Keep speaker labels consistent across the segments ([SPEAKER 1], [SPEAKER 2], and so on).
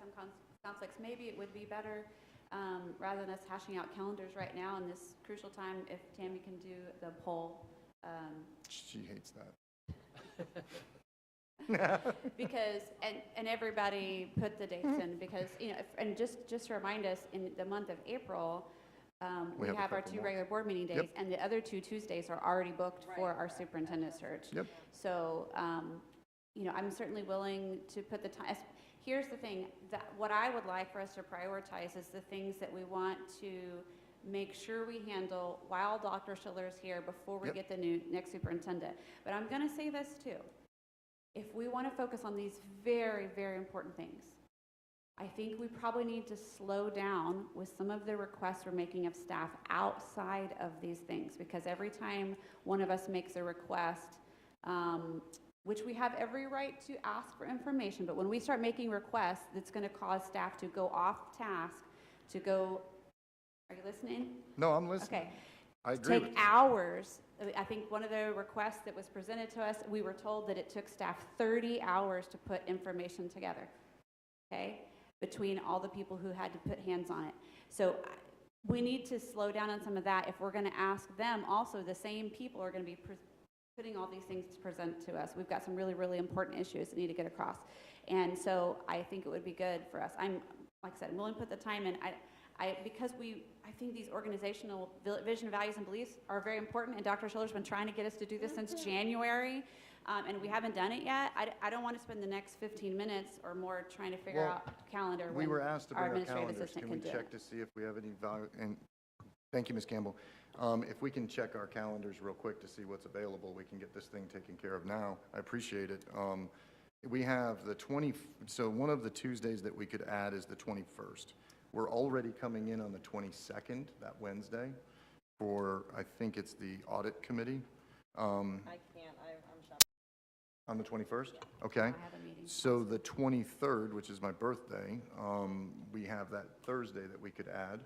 [SPEAKER 1] some cons- conflicts, maybe it would be better, um, rather than us hashing out calendars right now in this crucial time, if Tammy can do the poll. um,
[SPEAKER 2] She hates that.
[SPEAKER 1] Because, and, and everybody put the
[SPEAKER 2] Mm-hmm.
[SPEAKER 1] dates in, because, you know, if- and just, just to remind us, in the month of April, um,
[SPEAKER 2] We
[SPEAKER 1] we
[SPEAKER 2] have a
[SPEAKER 1] have our
[SPEAKER 2] couple
[SPEAKER 1] two
[SPEAKER 2] more.
[SPEAKER 1] regular board meeting
[SPEAKER 2] Yep.
[SPEAKER 1] days, and the other two Tuesdays are already booked for our superintendent search.
[SPEAKER 2] Yep.
[SPEAKER 1] So, um, you know, I'm certainly willing to put the time, here's the thing, that, what I would like for us to prioritize is the things that we want to make sure we handle while Dr. Schiller is here before we
[SPEAKER 2] Yep.
[SPEAKER 1] get the new, next superintendent. But I'm gonna say this too. If we wanna focus on these very, very important things, I think we probably need to slow down with some of the requests we're making of staff outside of these things, because every time one of us makes a request, um, which we have every right to ask for information, but when we start making requests, it's gonna cause staff to go off task, to go, are you listening?
[SPEAKER 2] No, I'm listening.
[SPEAKER 1] Okay,
[SPEAKER 2] I agree
[SPEAKER 1] take
[SPEAKER 2] with you.
[SPEAKER 1] hours. I think one of the requests that was presented to us, we were told that it took staff 30 hours to put information together, okay? Between all the people who had to put hands on it. So I- we need to slow down on some of that if we're going to ask them. Also, the same people are going to be pres- putting all these things to present to us. We've got some really, really important issues that need to get across. And so I think it would be good for us. I'm, like I said, I'm willing to put the time in. I, I, because we, I think these organizational vil- vision, values, and beliefs are very important, and Dr. Schiller's been trying to get us to do this since January, um, and we haven't done it yet. I, d- I don't want to spend the next 15 minutes or more trying to figure
[SPEAKER 2] Well,
[SPEAKER 1] out calendar
[SPEAKER 2] We
[SPEAKER 1] when
[SPEAKER 2] were asked to
[SPEAKER 1] our
[SPEAKER 2] bring our
[SPEAKER 1] administrative
[SPEAKER 2] calendars.
[SPEAKER 1] assistant
[SPEAKER 2] Can
[SPEAKER 1] can
[SPEAKER 2] we
[SPEAKER 1] do it.
[SPEAKER 2] check to see if we have any value? And, thank you, Ms. Campbell. Um, If we can check our calendars real quick to see what's available, we can get this thing taken care of now. I appreciate it. Um, We have the 20, so one of the Tuesdays that we could add is the 21st. We're already coming in on the 22nd, that Wednesday, for, I think it's the Audit Committee. Um,
[SPEAKER 3] I can't, I- I'm shocked.
[SPEAKER 2] On the 21st? Okay.
[SPEAKER 1] I have a meeting.
[SPEAKER 2] So the 23rd, which is my birthday, um, we have that Thursday that we could add.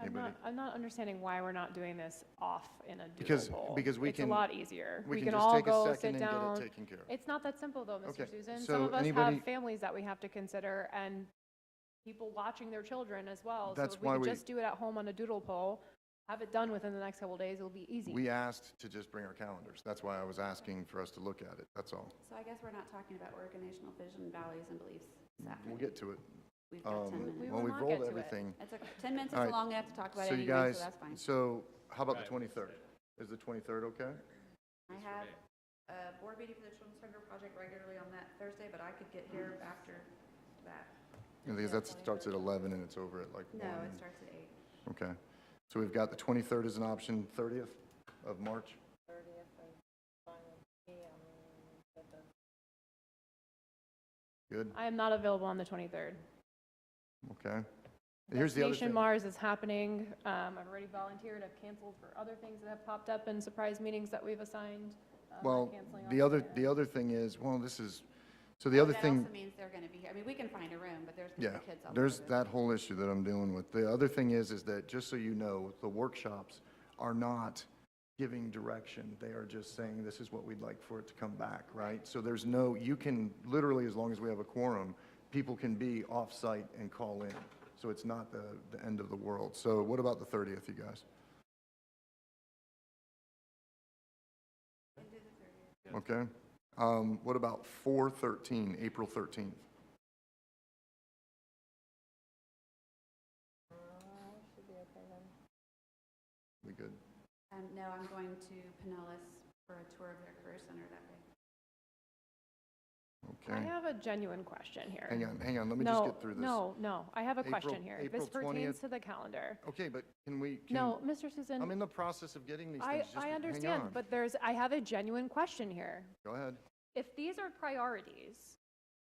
[SPEAKER 4] I'm
[SPEAKER 2] Anybody-
[SPEAKER 4] not, I'm not understanding why we're not doing this off in a
[SPEAKER 2] Because-
[SPEAKER 4] doodle poll.
[SPEAKER 2] because we can-
[SPEAKER 4] It's a lot easier.
[SPEAKER 2] We can
[SPEAKER 4] can
[SPEAKER 2] just
[SPEAKER 4] all
[SPEAKER 2] take a
[SPEAKER 4] go
[SPEAKER 2] second
[SPEAKER 4] sit
[SPEAKER 2] and get it
[SPEAKER 4] down.
[SPEAKER 2] taken care of.
[SPEAKER 4] It's not that simple though,
[SPEAKER 2] Okay,
[SPEAKER 4] Mr. Susan.
[SPEAKER 2] so
[SPEAKER 4] Some of us
[SPEAKER 2] anybody-
[SPEAKER 4] have families that we have to consider and people watching their children as well.
[SPEAKER 2] That's
[SPEAKER 4] So
[SPEAKER 2] why
[SPEAKER 4] if we
[SPEAKER 2] we-
[SPEAKER 4] could just do it at home on a doodle poll, have it done within the next couple days, it'll be easy.
[SPEAKER 2] We asked to just bring our calendars. That's why I was asking for us to look at it. That's all.
[SPEAKER 1] So I guess we're not talking about organizational vision, values, and beliefs this
[SPEAKER 2] We'll
[SPEAKER 1] afternoon.
[SPEAKER 2] get to it.
[SPEAKER 1] We've got
[SPEAKER 2] Um,
[SPEAKER 1] 10
[SPEAKER 4] We
[SPEAKER 1] minutes.
[SPEAKER 2] Well,
[SPEAKER 4] will
[SPEAKER 2] we've
[SPEAKER 4] not
[SPEAKER 2] rolled
[SPEAKER 4] get to it.
[SPEAKER 2] everything.
[SPEAKER 1] That's okay. 10 minutes
[SPEAKER 2] All
[SPEAKER 1] is
[SPEAKER 2] right.
[SPEAKER 1] long enough to talk about
[SPEAKER 2] So you
[SPEAKER 1] anyway,
[SPEAKER 2] guys,
[SPEAKER 1] so that's fine.
[SPEAKER 2] so how about the 23rd? Is the 23rd okay?
[SPEAKER 1] I have a board meeting for the Children's Hunger Project regularly on that Thursday, but I could get here after that. Um,
[SPEAKER 2] Yeah, Because that starts at 11 and it's over at like
[SPEAKER 1] No, it
[SPEAKER 2] 1.
[SPEAKER 1] starts at eight.
[SPEAKER 2] Okay. So we've got the 23rd as an option, 30th of March. Good,
[SPEAKER 4] I am not available on the 23rd.
[SPEAKER 2] okay. Here's the other
[SPEAKER 4] Destination
[SPEAKER 2] thing.
[SPEAKER 4] Mars is happening. Um, I've already volunteered. I've canceled for other things that have popped up and surprise meetings that we've assigned. Um, I'm
[SPEAKER 2] Well,
[SPEAKER 4] canceling
[SPEAKER 2] the
[SPEAKER 4] on
[SPEAKER 2] other, the other thing is, well, this is, so the other
[SPEAKER 1] Oh,
[SPEAKER 2] thing,
[SPEAKER 1] That also means they're going to be here. I mean, we can find a room, but there's going
[SPEAKER 2] yeah,
[SPEAKER 1] to be kids all over.
[SPEAKER 2] there's
[SPEAKER 1] the-
[SPEAKER 2] that whole issue that I'm dealing with. The other thing is, is that, just so you know, the workshops are not giving direction. They are just saying, this is what we'd like for it to come back, right? So there's no, you can, literally, as long as we have a quorum, people can be off-site and call in. So it's not the, the end of the world. So what about the 30th, you guys? Okay. Um, what about 4/13, April 13th? We good?
[SPEAKER 1] Um, no, I'm going to Pinellas for a tour of their career center that day.
[SPEAKER 4] I
[SPEAKER 2] Okay.
[SPEAKER 4] have a genuine question here.
[SPEAKER 2] Hang on, hang on, let me just
[SPEAKER 4] No,
[SPEAKER 2] get through this.
[SPEAKER 4] No, no, I have a
[SPEAKER 2] April-
[SPEAKER 4] question here.
[SPEAKER 2] April
[SPEAKER 4] This
[SPEAKER 2] 20th.
[SPEAKER 4] pertains to the calendar.
[SPEAKER 2] Okay, but can we? can-
[SPEAKER 4] No, Mr.
[SPEAKER 2] I'm
[SPEAKER 4] Susan,
[SPEAKER 2] in the process of getting these
[SPEAKER 4] I,
[SPEAKER 2] things. just
[SPEAKER 4] I
[SPEAKER 2] hang
[SPEAKER 4] understand,
[SPEAKER 2] on.
[SPEAKER 4] but there's, I have a genuine question here.
[SPEAKER 2] Go ahead.
[SPEAKER 4] If these are priorities,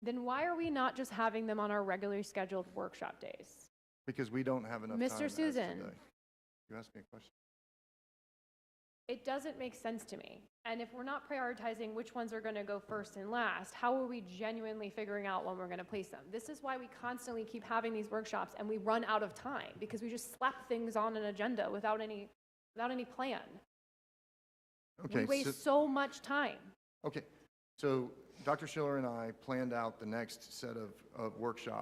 [SPEAKER 4] then why are we not just having them on our regularly scheduled workshop days?
[SPEAKER 2] Because we don't have enough time.
[SPEAKER 4] Mr.
[SPEAKER 2] as
[SPEAKER 4] Susan.
[SPEAKER 2] today. You asked me a question.
[SPEAKER 4] It doesn't make sense to me. And if we're not prioritizing which ones are going to go first and last, how are we genuinely figuring out when we're going to place them? This is why we constantly keep having these workshops and we run out of time because we just slap things on an agenda without any, without any plan.
[SPEAKER 2] Okay.
[SPEAKER 4] We
[SPEAKER 2] so-
[SPEAKER 4] waste so much time.
[SPEAKER 2] Okay, so Dr. Schiller and I planned out the next set of, of workshops.